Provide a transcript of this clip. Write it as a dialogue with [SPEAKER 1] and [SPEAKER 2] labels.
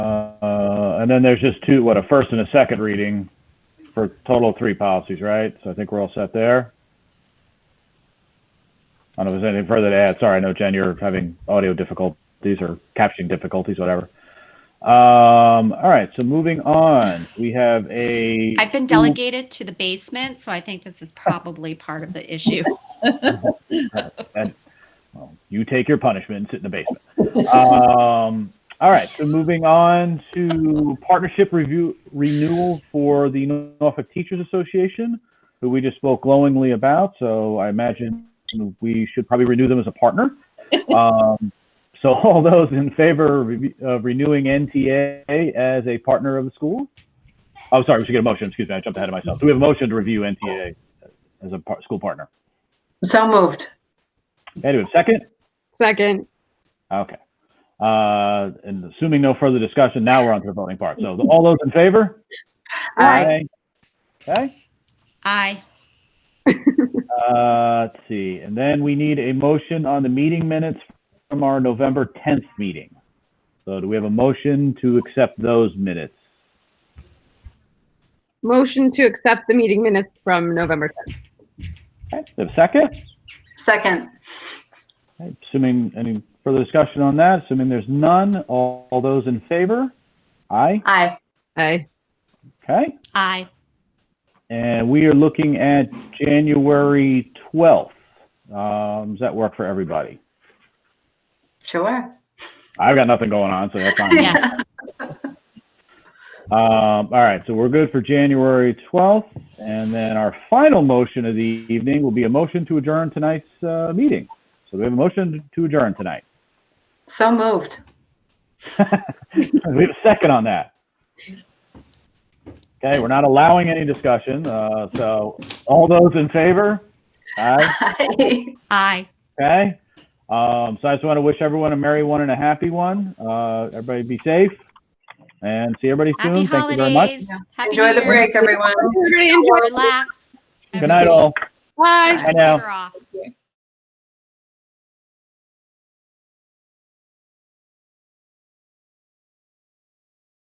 [SPEAKER 1] Uh, and then there's just two, what, a first and a second reading for a total of three policies, right? So I think we're all set there. I don't know if there's anything further to add. Sorry, I know, Jen, you're having audio difficulties or captioning difficulties, whatever. Um, all right, so moving on, we have a.
[SPEAKER 2] I've been delegated to the basement, so I think this is probably part of the issue.
[SPEAKER 1] Well, Um, you take your punishment and sit in the basement. um, all right. So moving on to partnership review renewal for the Norfolk Teachers Association, who we just spoke glowingly about. So I imagine we should probably renew them as a partner. Um, so all those in favor of re- of renewing NTA as a partner of the school? Oh, sorry. We should get a motion. Excuse me. I jumped ahead of myself. Do we have a motion to review NTA as a par- school partner?
[SPEAKER 3] So moved.
[SPEAKER 1] Hey, do we have a second?
[SPEAKER 4] Second,
[SPEAKER 1] Okay. Uh, and assuming no further discussion, now we're on to the voting part. So all those in favor?
[SPEAKER 3] Aye.
[SPEAKER 1] Okay,
[SPEAKER 2] Aye.
[SPEAKER 1] uh, let's see. And then we need a motion on the meeting minutes from our November 10th meeting. So do we have a motion to accept those minutes?
[SPEAKER 4] motion to accept the meeting minutes from November 10th.
[SPEAKER 1] Okay, do we have a second?
[SPEAKER 3] Second.
[SPEAKER 1] Okay, Assuming any further discussion on that, assuming there's none, all, all those in favor? Aye,
[SPEAKER 3] Aye.
[SPEAKER 4] Aye.
[SPEAKER 1] okay.
[SPEAKER 2] Aye.
[SPEAKER 1] And we are looking at January 12th. Um, does that work for everybody?
[SPEAKER 3] Sure.
[SPEAKER 1] I've got nothing going on, so that's fine.
[SPEAKER 2] Yes.
[SPEAKER 1] Um, all right, so we're good for January 12th. And then our final motion of the evening will be a motion to adjourn tonight's uh, meeting. So we have a motion to adjourn tonight.
[SPEAKER 3] So moved.
[SPEAKER 1] we have a second on that. Okay, we're not allowing any discussion. Uh, so all those in favor? Aye.
[SPEAKER 3] Aye.
[SPEAKER 2] Aye.
[SPEAKER 1] Okay. Um, so I just want to wish everyone a merry one and a happy one. Uh, everybody be safe and see everybody soon.
[SPEAKER 2] Happy
[SPEAKER 1] Thank you very much.
[SPEAKER 2] holidays. Happy
[SPEAKER 3] Enjoy
[SPEAKER 2] New
[SPEAKER 3] the
[SPEAKER 2] Year.
[SPEAKER 3] break, everyone.
[SPEAKER 4] Everybody enjoy.
[SPEAKER 2] Relax.
[SPEAKER 1] Good night, all.
[SPEAKER 4] Bye.
[SPEAKER 1] Bye
[SPEAKER 2] Everybody.
[SPEAKER 1] now.
[SPEAKER 2] Later off.